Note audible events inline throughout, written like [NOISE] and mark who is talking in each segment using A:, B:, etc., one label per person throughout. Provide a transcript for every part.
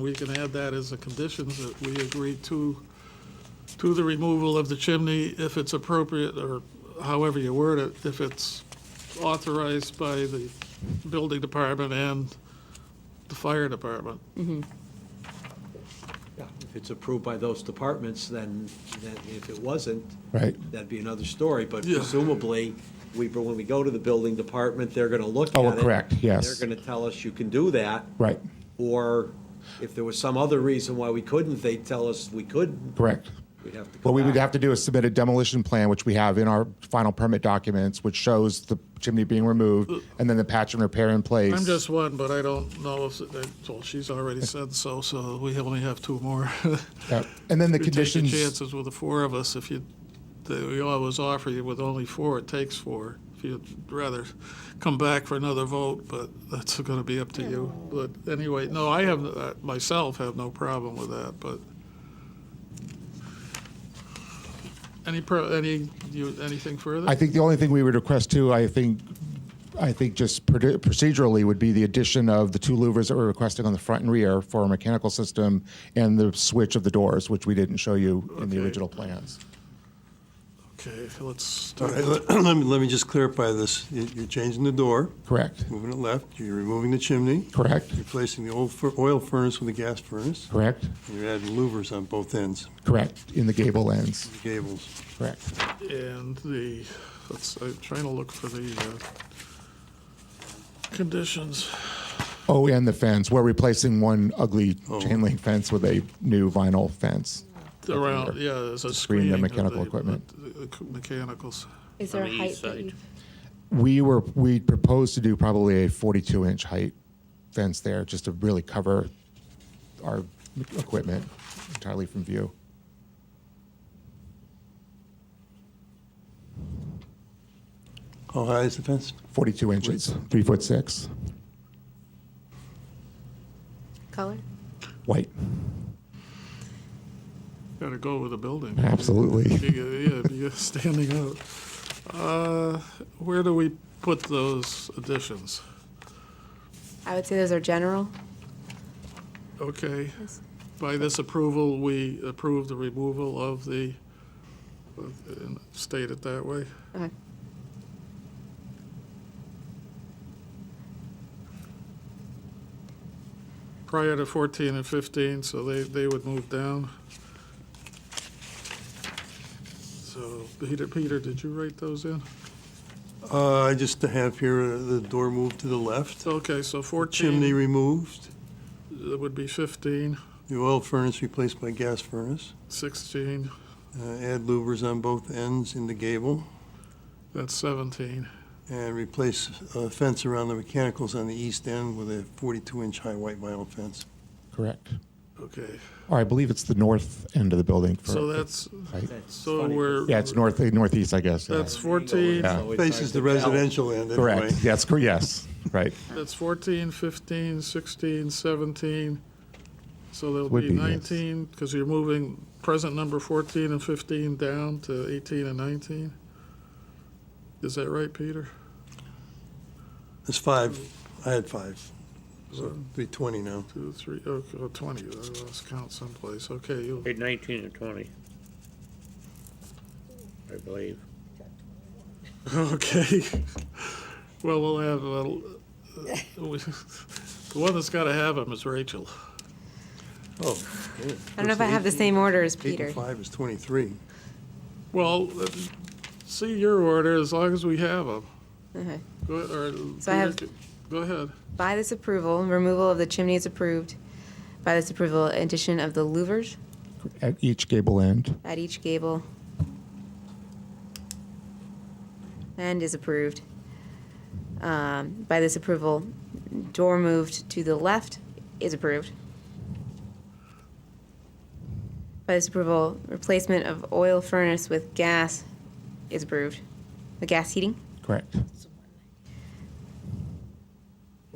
A: we can add that as a conditions that we agree to, to the removal of the chimney if it's appropriate, or however you word it, if it's authorized by the building department and the fire department.
B: Yeah, If it's approved by those departments, then, then if it wasn't,
C: Right.
B: that'd be another story, but
A: Yeah.
B: presumably, we, but when we go to the building department, they're gonna look at it.
C: Oh, correct, yes.
B: They're gonna tell us you can do that.
C: Right,
B: Or if there was some other reason why we couldn't, they'd tell us we couldn't,
C: correct.
B: we'd have to go
C: What we would
B: back.
C: have to do is submit a demolition plan, which we have in our final permit documents, which shows the chimney being removed and then the patch and repair in place.
A: I'm just one, but I don't know if, well, she's already said so, so we only have two more. [LAUGHS]
C: Yeah. And then the
A: You're taking
C: conditions.
A: chances with the four of us if you, they- we always offer you with only four, it takes four. If you'd rather come back for another vote, but that's gonna be up to you. But anyway, no, I have, uh, myself have no problem with that, but. Any, pro- any, you, anything further?
C: I think the only thing we would request too, I think, I think just proce- procedurally would be the addition of the two louvers that we're requesting on the front and rear for our mechanical system and the switch of the doors, which we didn't show you in the
A: Okay.
C: original plans.
A: Okay, let's, do
D: All right,
A: it.
D: let [CLEARS THROAT] let me, let me just clarify this. You- You're changing the door,
C: Correct,
D: moving it left, you're removing the chimney,
C: correct,
D: replacing the old fur- oil furnace with a gas furnace,
C: correct,
D: and you're adding louvers on both ends,
C: correct, in the gable ends,
D: the gables.
C: correct.
A: and the, let's, I'm trying to look for the, uh, conditions.
C: Oh, and the fence, we're replacing one ugly
D: Oh.
C: chain link fence with a new vinyl fence.
A: Around, yeah, there's a
C: screen the
A: screening. of
C: mechanical equipment.
A: the- the Mechanicals.
E: Is there
F: On
E: a
F: the
E: height
F: east
E: that
F: side.
E: you,
C: We were, we proposed to do probably a 42 inch height fence there just to really cover our equipment entirely from view.
D: How high is the fence?
C: 42 inches, three foot six,
E: color?
C: white.
A: Gotta go with the building.
C: Absolutely.
A: Yeah, you're standing out. Uh, Where do we put those additions?
E: I would say those are general.
A: Okay,
E: Yes.
A: by this approval, we approve the removal of the, and state it that way.
E: Okay.
A: Prior to 14 and 15, so they, they would move down. So, Peter, Peter, did you write those in?
D: Uh, I just have here uh, the door moved to the left,
A: Okay, so 14.
D: chimney removed,
A: That would be 15,
D: the oil furnace replaced by gas furnace,
A: 16,
D: uh, add louvers on both ends in the gable,
A: that's 17.
D: and replace a fence around the mechanicals on the east end with a 42-inch high white vinyl fence.
C: Correct.
A: Okay,
C: Or I believe it's the north end of the building. For,
A: so that's,
C: Right.
B: That's
A: so
B: funny,
A: we're.
C: Yeah, it's north northeast, I guess. yeah.
A: That's
B: because it's
A: 14,
C: Yeah.
B: always hard
D: Faces
B: to
D: the
B: tell.
D: residential end anyway.
C: correct. Yes, cor- yes. Right.
A: that's 14, 15, 16, 17. So there'll
C: Would
A: be
C: be, yes.
A: 19, because you're moving present number 14 and 15 down to 18 and 19. Is that right, Peter?
D: It's five, I had five, so it'd be 20 now.
A: Two, three, oh, oh, 20, I lost count someplace. Okay, you,
F: Page 19 and 20, I believe.
A: [LAUGHS] okay. Well, we'll have, uh, uh, we- [LAUGHS] the one that's got to have them is Rachel.
D: Oh,
E: I don't know if I have the same order as
D: eight
E: Peter.
D: and five is 23.
A: Well, uh, see your order as long as we have them.
E: Okay.
A: Go, or,
E: So I have-
A: Peter, go ahead.
E: By this approval, removal of the chimney is approved. By this approval, addition of the louvers
C: At each gable end.
E: at each gable. And is approved. Um, By this approval, door moved to the left is approved. By this approval, replacement of oil furnace with gas is approved. The gas heating?
C: Correct.
A: I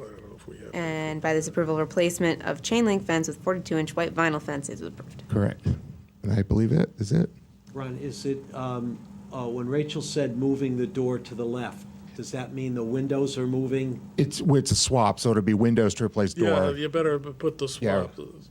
A: don't know if we have.
E: And by this approval, replacement of chain link fence with 42-inch white vinyl fence is approved.
C: Correct. And I believe it is it.
B: Ron, is it, um, uh, when Rachel said moving the door to the left, does that mean the windows are moving
C: It's it's a swap, so it'll be windows to replace door.
A: Yeah, you better b- put the
C: Yeah.
A: swap. uh,